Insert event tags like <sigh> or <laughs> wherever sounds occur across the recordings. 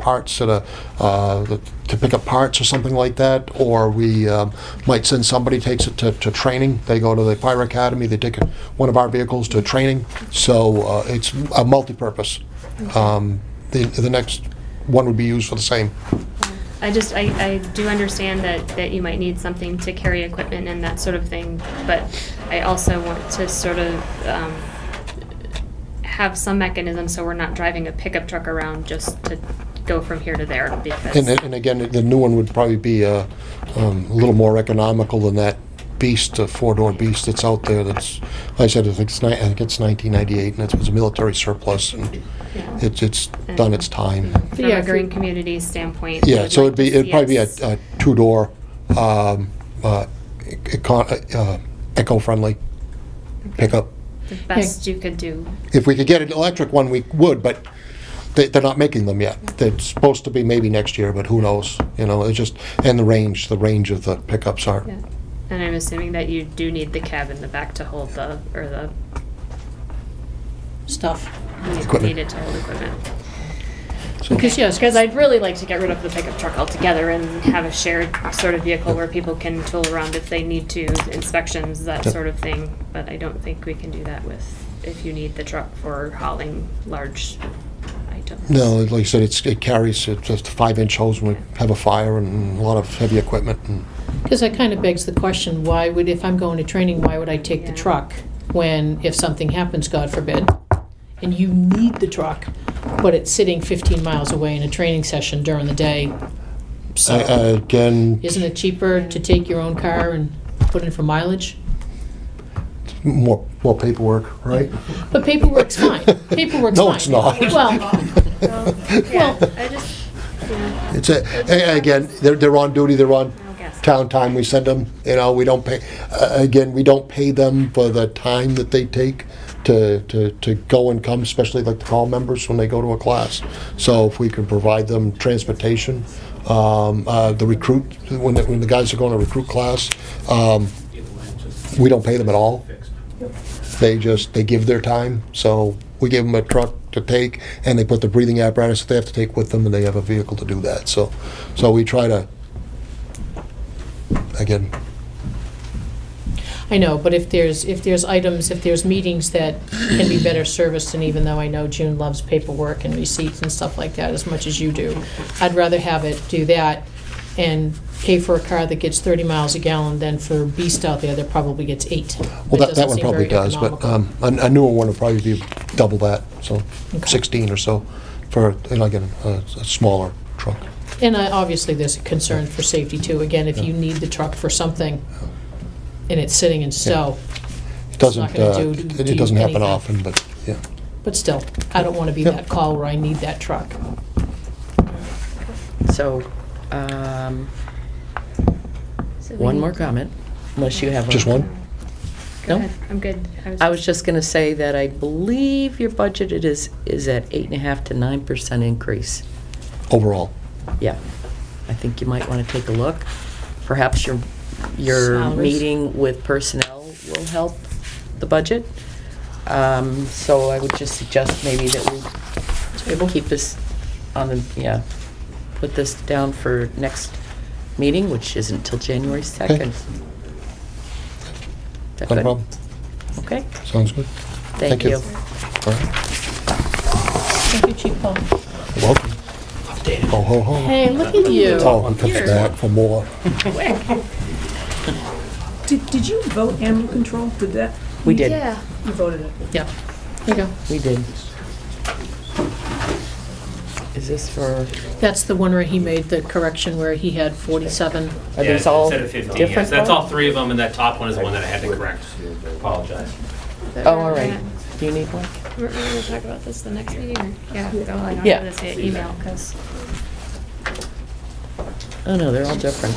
parts at a, uh, to pick up parts or something like that, or we um, might send somebody, takes it to, to training, they go to the fire academy, they take one of our vehicles to training, so uh, it's a multi-purpose. Um, The, the next one would be used for the same. I just, I, I do understand that, that you might need something to carry equipment and that sort of thing, but I also want to sort of, um, have some mechanism so we're not driving a pickup truck around just to go from here to there And, because, and again, the new one would probably be uh, um, a little more economical than that beast, uh four-door beast that's out there that's, like I said, I think it's ni- I think it's 1998, and it's- it was a military surplus, and Yeah. it's, it's done its time. from Yeah, a if green you- community standpoint. we Yeah, would so like it'd be, to it'd see probably be a us- a two-door, um, uh, econ- uh, eco-friendly pickup. The best you could do. If we could get an electric one, we would, but they, they're not making them yet. They're supposed to be maybe next year, but who knows? You know, it's just, and the range, the range of the pickups are. Yeah, and I'm assuming that you do need the cab in the back to hold the, or the, stuff. you Equipment. need it to hold equipment. So- Because, yes, Because I'd really like to get rid of the pickup truck altogether and have a shared sort of vehicle where people can tool around if they need to, inspections, that Yep. sort of thing. But I don't think we can do that with, if you need the truck for hauling large items. No, like I said, it's, it carries, it's just a five-inch hose when we have a fire and a lot of heavy equipment and, because that kind of begs the question, why would, if I'm going to training, why would I take the Yeah. truck when, if something happens, God forbid, and you need the truck, but it's sitting 15 miles away in a training session during the day? I- I- So, uh, again, isn't it cheaper to take your own car and put in for mileage? more, more paperwork, right? But <laughs> paperwork's fine. Paperwork's fine. No, it's not. Well, <laughs> Yeah, I just, yeah, It's a, a- again, they're, they're on duty, they're on I guess. town time, we send them, you know, we don't pay, uh, again, we don't pay them for the time that they take to, to, to go and come, especially like the call members when they go to a class. So if we can provide them transportation, um, uh, the recruit, when, the- when the guys are going to recruit class, um, we don't pay them at all. They just, they give their time, so we give them a truck to take, and they put the breathing apparatus that they have to take with them, and they have a vehicle to do that, so, so we try to, again, I know, but if there's, if there's items, if there's meetings that can be better serviced, and even though I know June loves paperwork and receipts and stuff like that as much as you do, I'd rather have it do that and pay for a car that gets 30 miles a gallon than for a beast out there that probably gets eight. well, that, doesn't that one seem probably very does, but economical. um, a a newer one would probably be double that, so Okay. 16 or so, for, and again, a a smaller truck. And I- obviously, there's a concern for safety, too. Again, if you need the truck for something and it's sitting in stow, It It's doesn't, not uh, gonna do- it do it doesn't happen anything. often, but, yeah. but still, I don't want to be Yep. that call where I need that truck. So, um, So we one need- more comment, unless you have one. Just one? Go No? ahead, I'm good. I was just gonna say that I believe your budget it is, is at eight and a half to nine percent increase. overall. Yeah, I think you might wanna take a look. Perhaps your, your Salaries. meeting with personnel will help the budget. Um, so I would just suggest maybe that we Table? keep this on the, yeah, put this down for next meeting, which isn't till January 2nd. Is Not that a good? problem. Okay, Sounds good. thank you. All right. Thank you, Chief Paul. You're Welcome. Ho, ho, ho. Hey, look at you. Oh, and comes back for more. Did, did you vote animal control? Did that, We did, Yeah, you voted it? Yeah, there you go. we did. Is this for, That's the one where he made the correction where he had 47. are Yeah, these all Instead of 15, yes. different? That's all ones? three of them, and that top one is the one that I had to correct. Apologize. Oh, all right. Do you need one? we're, we're gonna talk about this the next meeting, or, yeah, go ahead, Yeah. I'll just say email, because. Oh, no, they're all different.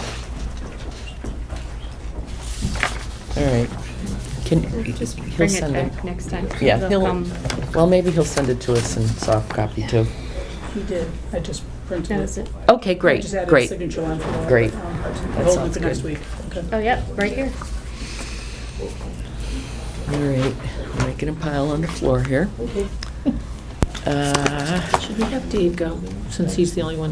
All right. Can, Just he'll bring it send it. back next time. Yeah, They'll he'll, come. well, maybe he'll send it to us in soft copy too. He did. I just printed That was it. it. Okay, great, Just added a great. signature line for that. Great. Um, That Hold it sounds for next good. week. Okay. Oh, yep, right here. All right, we're making a pile on the floor here. Um, Uh, Should we have Dave go, since he's the only one